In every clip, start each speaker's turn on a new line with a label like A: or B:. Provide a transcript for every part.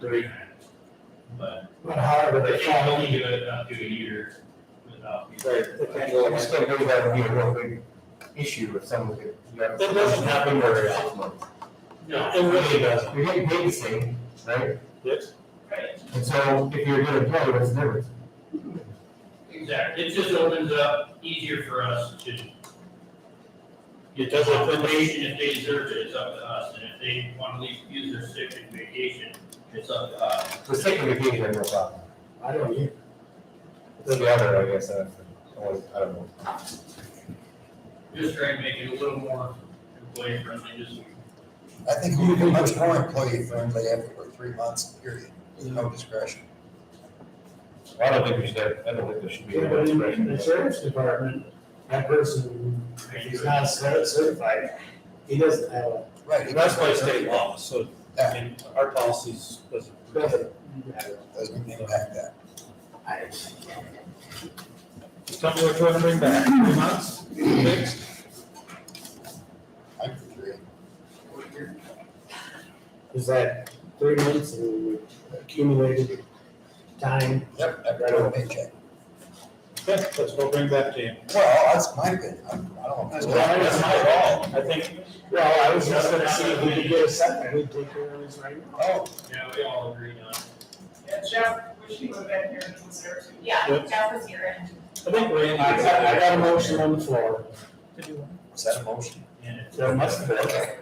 A: three,
B: but
A: but however
B: they
A: they
B: can
A: fall.
B: only do it up to a year without.
C: I just think maybe that would be a real big issue if someone could. It
D: doesn't happen very
C: often.
B: No.
C: It really does. You're getting paid the same, right?
D: Yes.
B: Right,
C: And so if you're gonna pay, what's the difference?
B: exactly. It just opens up easier for us to.
D: It does open the-
B: Information, if they deserve it, it's up to us, and if they want to leave, use their sick and vacation, it's up to us.
C: The second vacation, I have no problem.
A: I don't, either.
C: It's the other, I guess, I don't I don't- I don't know.
B: Just trying to make it a little more employee friendly, just.
E: I think we are much more employee friendly after three months, period, with no discretion.
C: I don't think we should, have- I don't think there should be.
A: Yeah,
C: any
A: but in
C: discretion.
A: in the sheriff's department, that person, if he's not cer- certified, he doesn't have a.
E: Right.
D: And that's by state law, so, I
E: Yeah,
D: mean, our policies doesn't.
A: doesn't
E: doesn't impact that.
A: I-
D: Tell me what you want to bring back, three months, six?
E: I'm for three.
A: Is that three months of accumulated time?
E: Yep, every little paycheck.
D: Okay, let's go bring back to you.
E: Well, that's my opinion. I'm- I don't.
A: That's right, that's my
D: fault. I think,
A: Well, I was just gonna see if we could get a second, we'd take care of this right now.
E: Oh,
B: Yeah, we all agree on. it.
F: Yeah, Jeff, wish he would have been here and was there too.
G: Yeah,
D: Yep.
G: Jeff was here and
D: I think Randy.
A: I got, I got a motion on the floor.
E: is that a motion?
B: And it's-
A: There must have been.
E: Okay.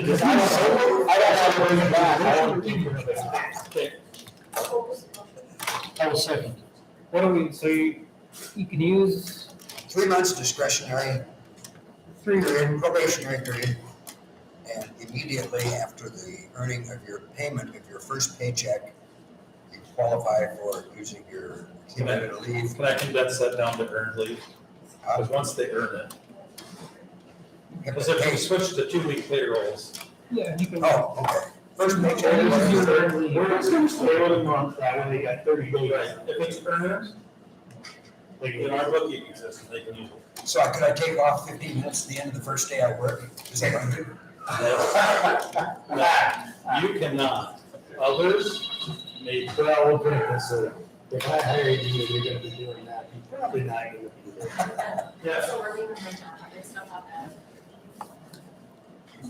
A: Because I don't, I don't have to bring it back, I don't think we're back.
H: I will second. What do we, so you, you can use
E: Three months discretionary
H: three,
E: period, probationary period. And immediately after the earning of your payment of your first paycheck, you qualify for using your accumulated leave.
D: Can I think that's set down to earned leave? Because once they earn it, because if we switch to two-week payrolls,
H: yeah, you can.
E: Oh, okay. First
A: Or
E: paycheck.
A: you
E: whatever.
A: just do it. We're just gonna stay with a month, that way they got thirty days.
D: if it's earned,
A: They
D: in
A: can-
D: our booking system, they can use it.
E: So I could I take off fifteen minutes at the end of the first day I work? Is that what I'm doing?
D: No, You cannot. Others may,
A: Well, we'll put it this way, if I hired you, you're gonna be doing that, you're probably not gonna be there.
D: yeah,
G: so we're leaving right now, there's stuff up there.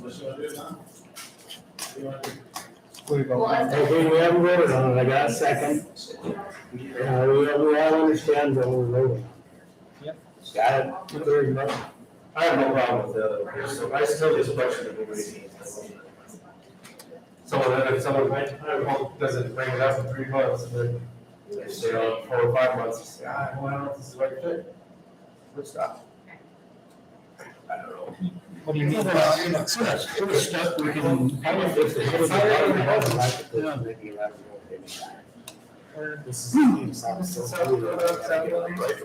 B: What's gonna do it now? You want to-
H: Where you go?
G: Well, as-
A: Okay, we haven't voted on it, I got a second, uh, we, we all understand what we're voting.
D: Yep.
A: Got it, very much.
C: I have no problem with the other, so I still just question if anybody. Someone, if someone doesn't bring it up in three months, and then they stay on four or five months, you say, ah, well, I don't know if this is the right fit. Good stuff. I don't know.
H: What do you mean?
E: Well, you're not scratching.
H: If we're stuck, we can.
A: I don't think they have a problem with it, I think they don't think you have to vote anytime. This is, it sounds so weird.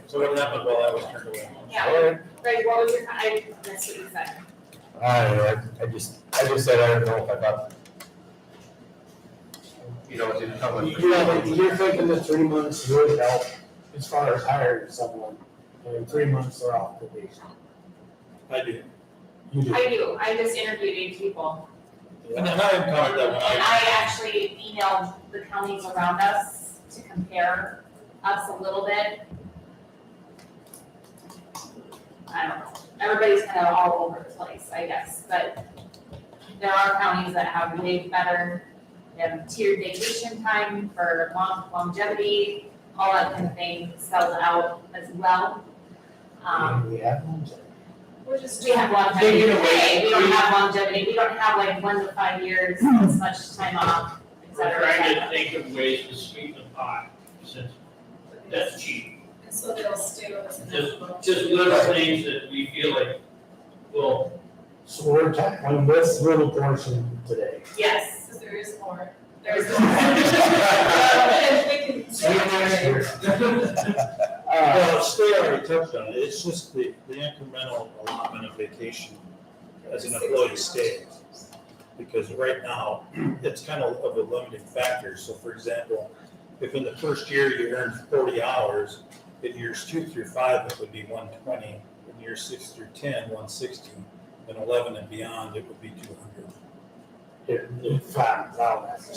D: so what happened while I was turned away?
G: Yeah, right, what was your, I missed what you said.
C: I don't know, I, I just, I just said, I don't know if I thought. You know, didn't come with.
A: You know, you're thinking that three months would help as far as hiring someone, and three months are off probation.
D: I do.
A: You do.
G: I do, I just interviewed eight people,
D: And then I encountered that
G: and
D: one.
G: I actually emailed the counties around us to compare us a little bit. I don't know, everybody's kind of all over the place, I guess, but there are counties that have way better, they have tiered vacation time for long longevity, all that kind of thing sells out as well. Um,
A: And we have ones.
F: We're just.
G: we have
A: They
G: longevity
A: get away.
G: today, we don't have longevity, we don't have like one to five years, as much time off, et
B: We're
G: cetera, et
B: trying to
G: cetera.
B: think of ways to sweeten the pot, since that's cheap.
F: And so they'll stay with us. in that little-
B: Just little things that we feel like will
A: So we're tackling this little portion today.
G: Yes,
F: Because there is more.
G: there's.
F: We
A: Uh,
D: Well, Stay already touched on it, it's just the, the incremental allotment of vacation as an employee stay. Because right now, it's kind of of a limiting factor, so for example, if in the first year you earn forty hours, in years two through five, it would be one twenty, in years six through ten, one sixty, and eleven and beyond, it would be two hundred.
A: it, it flattens out.